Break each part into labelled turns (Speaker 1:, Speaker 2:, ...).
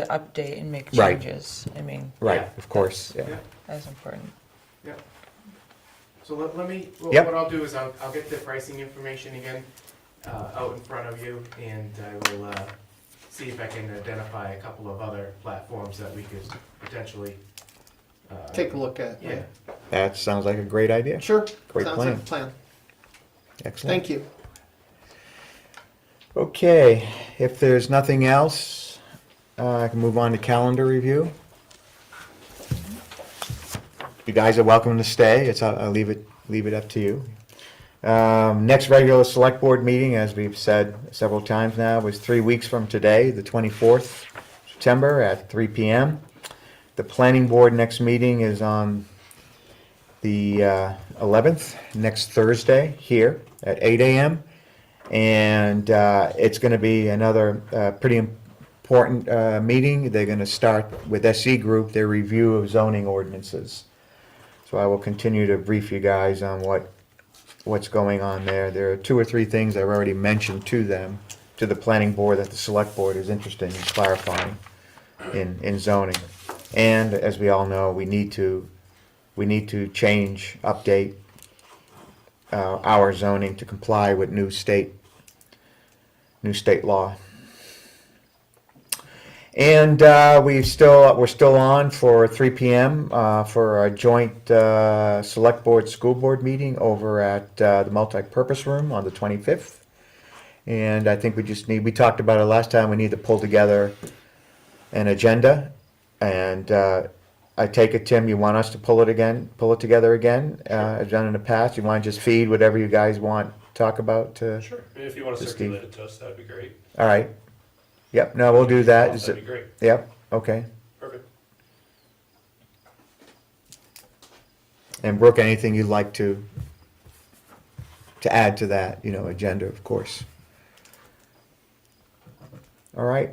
Speaker 1: to update and make
Speaker 2: Right.
Speaker 1: changes. I mean,
Speaker 2: Right,
Speaker 3: Yeah.
Speaker 2: of course, yeah.
Speaker 3: Yeah.
Speaker 1: that's important.
Speaker 3: Yeah. So let, let me, wh-
Speaker 2: Yep.
Speaker 3: what I'll do is I'll, I'll get the pricing information again, uh, out in front of you, and I will, uh, see if I can identify a couple of other platforms that we could potentially, uh.
Speaker 4: take a look at.
Speaker 3: Yeah,
Speaker 2: That sounds like a great idea.
Speaker 4: Sure.
Speaker 2: Great
Speaker 4: Sounds
Speaker 2: plan.
Speaker 4: like a plan.
Speaker 2: Excellent.
Speaker 4: Thank you.
Speaker 2: Okay, if there's nothing else, uh, I can move on to calendar review. You guys are welcome to stay. It's, uh, I'll, I'll leave it, leave it up to you. Um, next regular select board meeting, as we've said several times now, is three weeks from today, the twenty-fourth September at three P M. The planning board next meeting is on the uh, eleventh, next Thursday, here at eight AM. And uh, it's going to be another uh, pretty important uh, meeting. They're going to start with SE Group, their review of zoning ordinances. So I will continue to brief you guys on what, what's going on there. There are two or three things I've already mentioned to them, to the planning board, that the select board is interested in clarifying in, in zoning. And as we all know, we need to, we need to change, update uh, our zoning to comply with new state, new state law. And uh, we still, we're still on for 3 PM uh, for our joint uh, Select Board School Board meeting over at uh, the multipurpose room on the 25th. And I think we just need, we talked about it last time, we need to pull together an agenda. And uh, I take it, Tim, you want us to pull it again, pull it together again, uh, as done in the past? You want to just feed whatever you guys want, to talk about to,
Speaker 5: Sure, And if you want to
Speaker 2: Just
Speaker 5: circulate it to us, that'd be great.
Speaker 2: all right? Yep, no, we'll do that. Is
Speaker 5: That'd be
Speaker 2: it-
Speaker 5: great,
Speaker 2: Yep, okay.
Speaker 5: perfect.
Speaker 2: And Brooke, anything you'd like to, to add to that, you know, agenda, of course? All right,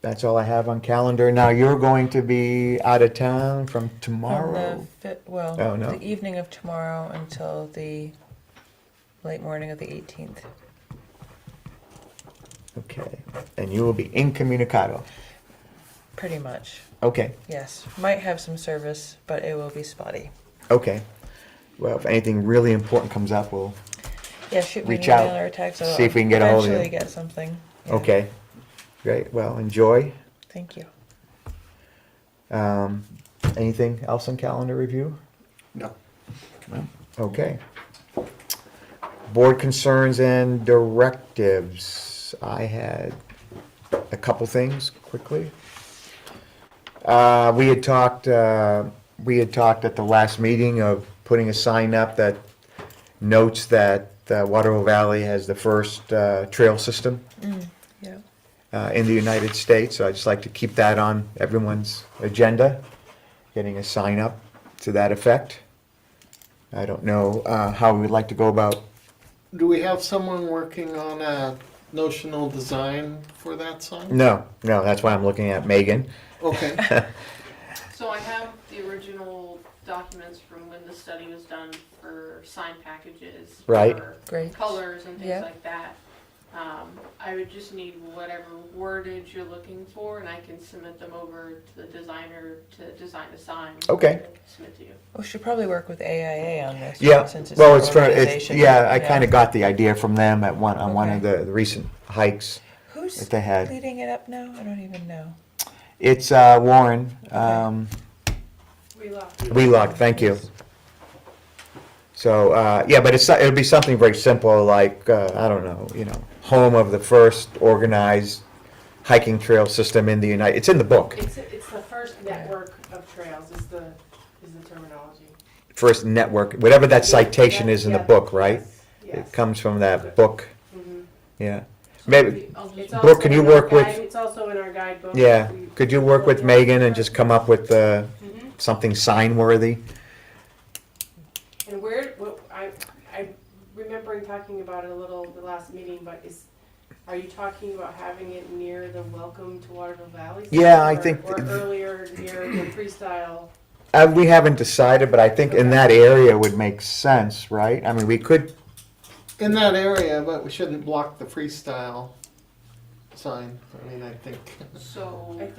Speaker 2: that's all I have on calendar. Now, you're going to be out of town from
Speaker 1: From
Speaker 2: tomorrow?
Speaker 1: the fit, well,
Speaker 2: Oh, no.
Speaker 1: the evening of tomorrow until the late morning of the 18th.
Speaker 2: Okay, and you will be incommunicado.
Speaker 1: Pretty much,
Speaker 2: Okay,
Speaker 1: yes. Might have some service, but it will be spotty.
Speaker 2: okay. Well, if anything really important comes up, we'll,
Speaker 1: Yeah, shoot me an
Speaker 2: Reach out.
Speaker 1: email or a text.
Speaker 2: See if we can get a hold of you.
Speaker 1: Eventually get something. Yeah.
Speaker 2: okay. Great, well, enjoy.
Speaker 1: Thank you.
Speaker 2: Um, anything else on calendar review?
Speaker 4: No.
Speaker 2: Okay. Board concerns and directives. I had a couple things quickly. Uh, we had talked, uh, we had talked at the last meeting of putting a sign up that notes that uh, Waterville Valley has the first, uh, trail system,
Speaker 1: Yeah.
Speaker 2: uh, in the United States. So I'd just like to keep that on everyone's agenda, getting a sign up to that effect. I don't know uh, how we would like to go about.
Speaker 4: Do we have someone working on a notional design for that song?
Speaker 2: No, no, that's why I'm looking at Megan.
Speaker 4: Okay.
Speaker 6: So I have the original documents from when the study was done for sign packages.
Speaker 2: Right.
Speaker 6: for
Speaker 1: Great.
Speaker 6: Colors and
Speaker 1: Yeah.
Speaker 6: things like that. Um, I would just need whatever wordage you're looking for and I can submit them over to the designer to design a sign.
Speaker 2: Okay.
Speaker 6: and Submit to you.
Speaker 1: We should probably work with AIA on this.
Speaker 2: Yeah,
Speaker 1: Since it's
Speaker 2: well,
Speaker 1: an
Speaker 2: it's for it's
Speaker 1: organization.
Speaker 2: yeah. I kind of got the idea from them at one on one of
Speaker 1: Okay.
Speaker 2: the, the recent hikes
Speaker 1: Who's
Speaker 2: that they had.
Speaker 1: leading it up now? I don't even know.
Speaker 2: It's uh, Warren um,
Speaker 6: We
Speaker 2: Wheelock. Thank you. So uh, yeah, but it's it would be something very simple like uh, I don't know, you know, home of the first organized hiking trail system in the United. It's in the book.
Speaker 7: It's, it's the first network of trails is the, is the terminology.
Speaker 2: First network, whatever that citation is in the
Speaker 7: Yeah.
Speaker 2: book, right?
Speaker 7: Yes.
Speaker 2: It comes from that book.
Speaker 7: Mhm.
Speaker 2: Yeah. Maybe
Speaker 6: I'll just
Speaker 7: It's also
Speaker 2: Brooke, can you
Speaker 7: in our
Speaker 2: work with-
Speaker 7: guide- It's also in our guidebook.
Speaker 2: Yeah,
Speaker 7: We-
Speaker 2: could you work with Megan and just come up with uh,
Speaker 7: Mhm.
Speaker 2: something sign-worthy?
Speaker 7: And where, what, I, I'm remembering talking about it a little the last meeting, but is, are you talking about having it near the Welcome to Waterville Valley? sign
Speaker 2: Yeah, I
Speaker 7: or-
Speaker 2: think
Speaker 7: Or
Speaker 2: th-
Speaker 7: earlier near the freestyle?
Speaker 2: Uh, We haven't decided, but I think in that area would make sense, right? I mean, we could,
Speaker 4: In that area, but we shouldn't block the freestyle sign. I mean, I think.
Speaker 6: So.
Speaker 7: I think